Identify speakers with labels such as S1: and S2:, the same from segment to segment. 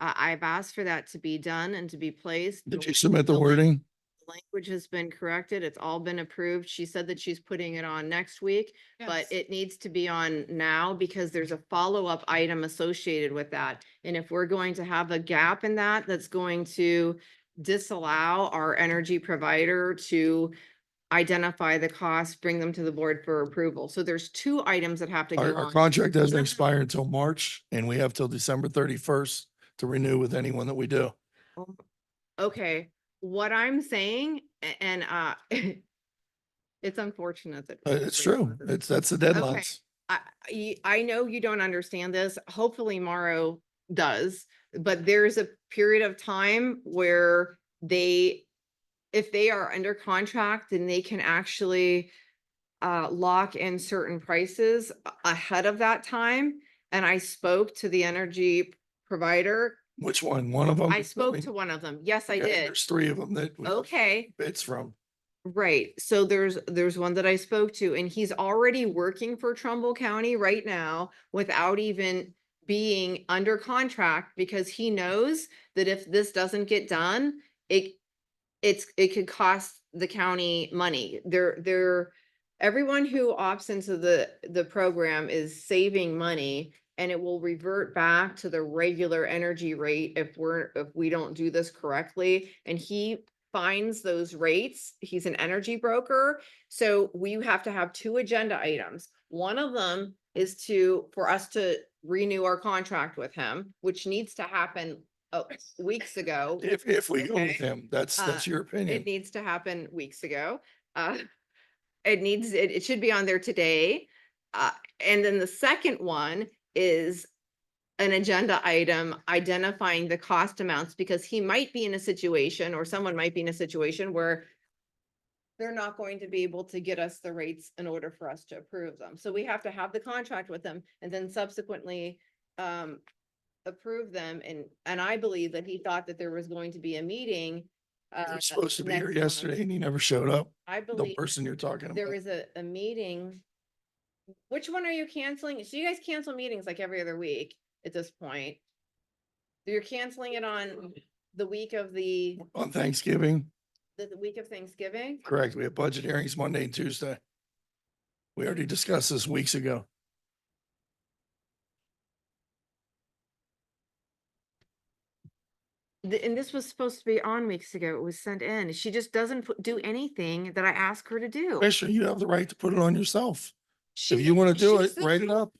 S1: Uh, I've asked for that to be done and to be placed.
S2: Did
S1: The-
S2: you submit the
S1: the
S2: wording?
S1: Language has been corrected. It's all been approved. She said that she's putting it on next week, but
S3: Yes.
S1: it needs to be on now because there's a follow-up item associated with that. And if we're going to have a gap in that, that's going to disallow our energy provider to identify the costs, bring them to the board for approval. So there's two items that have to
S2: Our,
S1: go
S2: our
S1: on.
S2: contract doesn't expire until March and we have till December thirty-first to renew with anyone that we do.
S1: Okay, what I'm saying, a- and, uh, it's unfortunate that.
S2: Uh, It's
S1: Wait, what
S2: true.
S1: is it?
S2: It's, that's the deadlines.
S1: I, I, I know you don't understand this. Hopefully Morrow does, but there's a period of time where they, if they are under contract, then they can actually uh, lock in certain prices a- ahead of that time. And I spoke to the energy provider.
S2: Which one? One of them?
S1: I spoke to one of them. Yes, I did.
S2: There's three of them that we-
S1: Okay.
S2: it's from.
S1: Right, so there's, there's one that I spoke to and he's already working for Trumbull County right now without even being under contract because he knows that if this doesn't get done, it, it's, it could cost the county money. They're, they're, everyone who opts into the, the program is saving money and it will revert back to the regular energy rate if we're, if we don't do this correctly. And he finds those rates. He's an energy broker. So we have to have two agenda items. One of them is to, for us to renew our contract with him, which needs to happen uh, weeks ago.
S2: If, if we go with
S1: Okay.
S2: him, that's,
S1: Uh,
S2: that's your opinion.
S1: It needs to happen weeks ago. Uh, It needs, it, it should be on there today. Uh, And then the second one is an agenda item identifying the cost amounts because he might be in a situation or someone might be in a situation where they're not going to be able to get us the rates in order for us to approve them. So we have to have the contract with them and then subsequently um, approve them. And, and I believe that he thought that there was going to be a meeting.
S2: He
S1: uh,
S2: was supposed to be
S1: next
S2: here
S1: month.
S2: yesterday and he never showed up.
S1: I
S2: The
S1: believe
S2: person you're talking
S1: there
S2: about.
S1: was a, a meeting. Which one are you canceling? So you guys cancel meetings like every other week at this point. You're canceling it on the week of the,
S2: On Thanksgiving,
S1: the the week of Thanksgiving?
S2: correct. We have budget hearings Monday and Tuesday. We already discussed this weeks ago.
S1: Oh. The- And this was supposed to be on weeks ago. It was sent in. She just doesn't put- do anything that I ask her to do.
S2: Commissioner, you have the right to put it on yourself.
S1: She-
S2: If you want to do
S1: she's
S2: it,
S1: the
S2: write it up.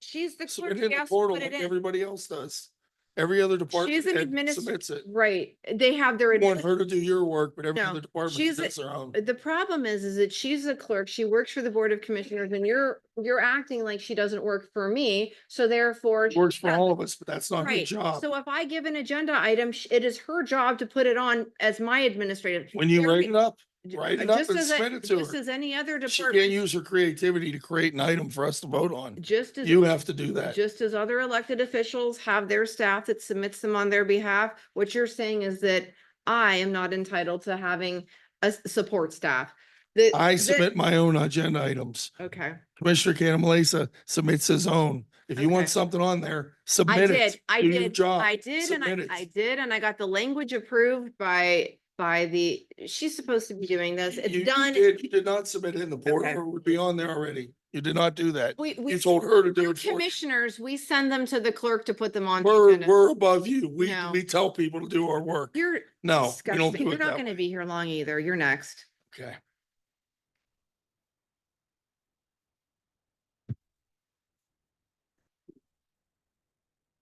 S1: She's the
S2: Submit
S1: clerk.
S2: it in
S1: She
S2: the
S1: has to
S2: portal
S1: put
S2: like
S1: it in.
S2: everybody else does. Every other department
S1: She's an
S2: head
S1: administ-
S2: submits it.
S1: Right, they have their.
S2: You Want
S1: administ-
S2: her to do your work, but every
S1: No,
S2: other department
S1: she's a-
S2: does their own.
S1: The problem is, is that she's a clerk, she works for the Board of Commissioners, and you're, you're acting like she doesn't work for me, so therefore.
S2: It Works for
S1: yeah,
S2: all of us, but that's not her
S1: Right,
S2: job.
S1: so if I give an agenda item, sh- it is her job to put it on as my administrative.
S2: When you
S1: There
S2: write
S1: i-
S2: it up,
S1: j-
S2: write it up
S1: just
S2: and
S1: as a-
S2: submit it to
S1: Just
S2: her.
S1: as any other
S2: she can't
S1: department,
S2: use her creativity to create an item for us to vote on.
S1: just as.
S2: You have to do that.
S1: Just as other elected officials have their staff that submits them on their behalf, what you're saying is that I am not entitled to having a s- support staff. The-
S2: I
S1: the-
S2: submit my own agenda items.
S1: Okay.
S2: Commissioner Cantalasa submits his own. If you want
S1: Okay.
S2: something on there,
S1: I
S2: submit
S1: did,
S2: it.
S1: I
S2: Do your
S1: did,
S2: job.
S1: I did, and
S2: Submit
S1: I,
S2: it.
S1: I did, and I got the language approved by, by the, she's supposed to be doing this,
S2: You- you
S1: it's done.
S2: did- You did not submit it in the portal,
S1: Okay.
S2: or it would be on there already. You did not do that.
S1: We, we,
S2: You told her to do
S1: we're
S2: it. for you.
S1: commissioners, we send them to the clerk to put them on. the
S2: We're,
S1: agenda.
S2: we're above you. We,
S1: No.
S2: we tell people to do our work.
S1: You're
S2: No, we don't
S1: disgusting,
S2: do
S1: you're
S2: it
S1: not
S2: that way.
S1: gonna be here long either, you're next.
S2: Okay.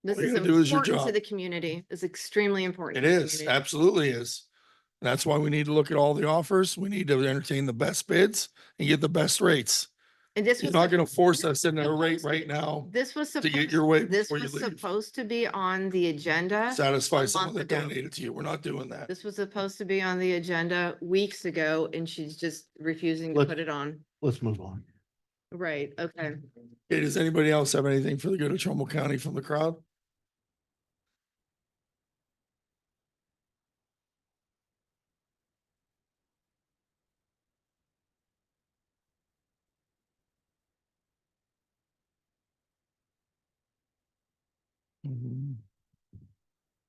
S1: This
S2: you're
S1: is
S2: gonna do is your
S1: important to
S2: job.
S1: the community, it's extremely important.
S2: It
S1: to the
S2: is,
S1: community.
S2: absolutely is. That's why we need to look at all the offers. We need to entertain the best bids and get the best rates.
S1: And this
S2: You're
S1: was,
S2: not
S1: supp-
S2: gonna force us into a rate
S1: supposed to
S2: right
S1: be-
S2: now
S1: this was
S2: to get
S1: supposed,
S2: your way
S1: this
S2: before you
S1: was
S2: leave.
S1: supposed to be on the agenda.
S2: Satisfy
S1: a
S2: someone that
S1: month ago.
S2: donated to you. We're not doing that.
S1: This was supposed to be on the agenda weeks ago and she's just refusing to
S4: Let's-
S1: put it on.
S4: Let's move on.
S1: Right, okay.
S2: Okay, does anybody else have anything for the good of Trumbull County from the crowd? Mhm.